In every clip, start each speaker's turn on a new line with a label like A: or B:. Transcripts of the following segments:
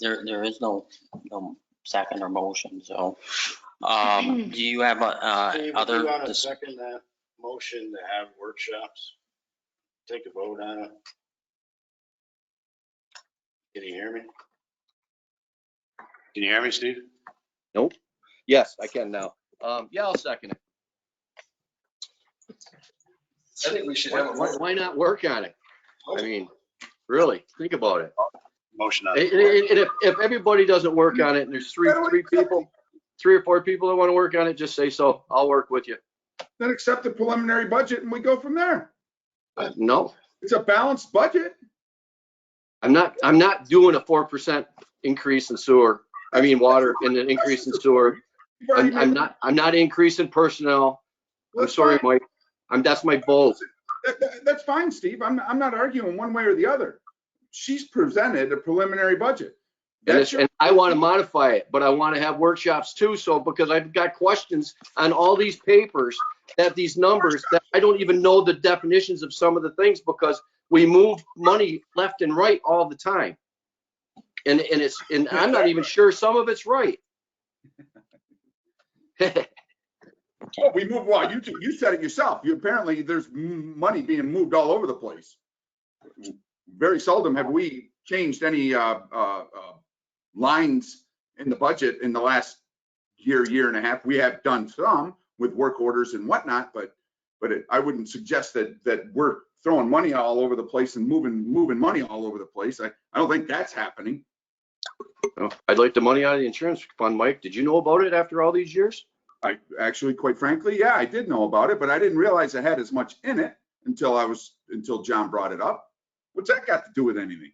A: There, there is no, no second or motion, so. Um, do you have, uh, uh,
B: Steve, if
A: other,
B: you want to
A: dis-
B: second that motion to have workshops, take a vote on it. Can you hear me? Can you hear me, Steve?
C: Yes, I can now. Um, yeah, I'll second it.
D: I think we should
C: Why,
D: have a
C: why-
D: vote.
C: why not work on it? I mean, really, think about it.
B: Motion on.
C: And,
B: the floor.
C: and- and if, if everybody doesn't work on it and there's three, three people, three or four people that want to work on it, just say so. I'll work with you.
E: then accept the preliminary budget and we go from there.
C: Uh, No,
E: It's a balanced budget.
C: I'm not, I'm not doing a four percent increase in sewer, I mean, water and an increase in sewer.
E: You've already
C: I'm, I'm
E: made-
C: not, I'm not increasing personnel. I'm
E: That's
C: sorry,
E: fine.
C: Mike. I'm, that's my bold.
E: That- that- That's fine, Steve. I'm, I'm not arguing one way or the other. She's presented a preliminary budget.
C: And
E: That's
C: it's, and I want to modify it, but I want to have workshops too, so, because I've got questions on all these papers that these numbers, that I don't even know the definitions of some of the things, because we move money left and right all the time. And, and it's, and I'm not even sure some of it's right.
E: your- We move, well, you, ju- you said it yourself. You apparently, there's m- money being moved all over the place. Very seldom have we changed any, uh, uh, uh, lines in the budget in the last year, year and a half. We have done some with work orders and whatnot, but, but it- I wouldn't suggest that, that we're throwing money all over the place and moving, moving money all over the place. I, I don't think that's happening.
C: Oh, I'd like the money out of the insurance fund, Mike. Did you know about it after all these years?
E: I actually, quite frankly, yeah, I did know about it, but I didn't realize it had as much in it until I was, until John brought it up. What's that got to do with anything?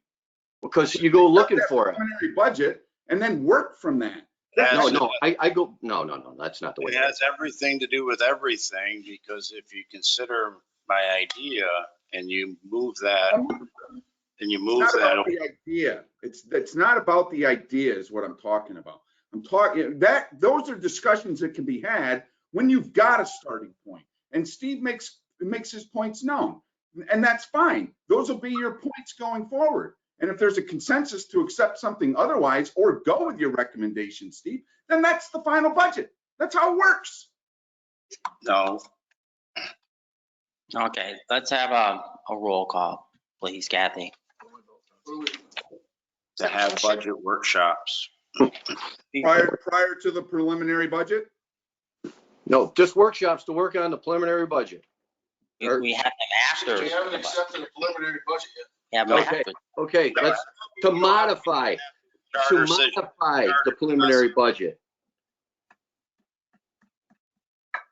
C: Because you go looking for it.
E: Preliminary budget and then work from that.
C: No,
B: That's-
C: no, I, I go, no, no, no, that's not the way.
B: It has everything to do with everything, because if you consider my idea and you move that, and you move
E: It's not
B: that,
E: about the idea. It's, it's not about the idea is what I'm talking about. I'm talking, that, those are discussions that can be had when you've got a starting point. And Steve makes, makes his points known. And that's fine. Those will be your points going forward. And if there's a consensus to accept something otherwise or go with your recommendation, Steve, then that's the final budget. That's how it works.
B: no,
A: okay, let's have a, a roll call, please, Kathy.
B: to have budget workshops.
E: Prior, prior to the preliminary budget,
C: No, just workshops to work on the preliminary budget.
A: We we have them after.
D: We haven't accepted a preliminary budget yet.
A: Yeah, but
C: Okay.
A: after-
C: Okay, let's, to modify, to
B: Charter says-
C: modify the preliminary budget.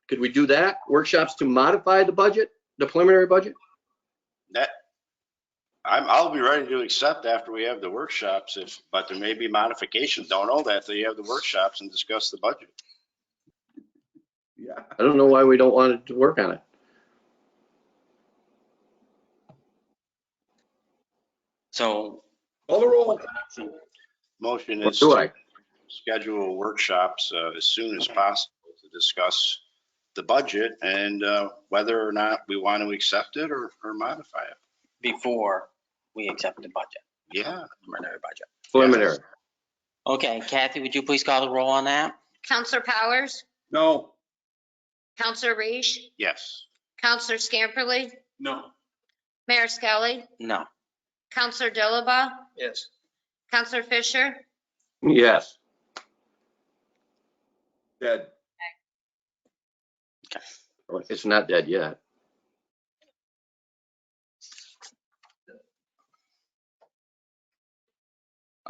C: Could we do that? Workshops to modify the budget, the preliminary budget?
B: That, I'm, I'll be ready to accept after we have the workshops if, but there may be modifications. Don't know that till you have the workshops and discuss the budget.
E: yeah.
C: I don't know why we don't want to work on it.
A: so,
E: Call the roll.
B: Motion
C: What
B: is
C: do I?
B: to schedule workshops uh, as soon as possible to discuss the budget and uh, whether or not we want to accept it or, or modify it.
A: before we accept the budget,
B: Yeah,
A: preliminary budget.
C: Preliminary.
A: Okay, Kathy, would you please call the roll on that?
F: Counselor Powers,
E: No.
F: Counselor Reish,
B: yes.
F: Counselor Scamperly,
D: No.
F: Mayor Skelly,
A: No.
F: Counselor Dilaba,
D: Yes.
F: Counselor Fisher,
C: Yes.
E: Dead.
C: It's not dead yet.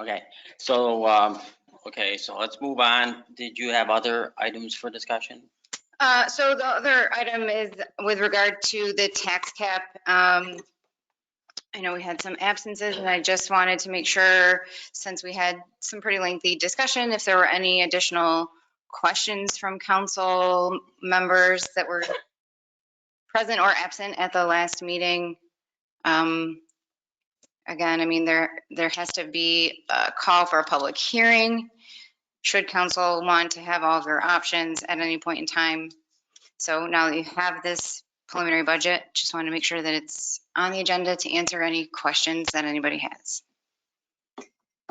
A: Okay, so, um, okay, so let's move on. Did you have other items for discussion?
G: Uh, So the other item is with regard to the tax cap. Um, I know we had some absences and I just wanted to make sure, since we had some pretty lengthy discussion, if there were any additional questions from council members that were present or absent at the last meeting. Um, Again, I mean, there, there has to be a call for a public hearing should council want to have all of their options at any point in time. So now that you have this preliminary budget, just want to make sure that it's on the agenda to answer any questions that anybody has.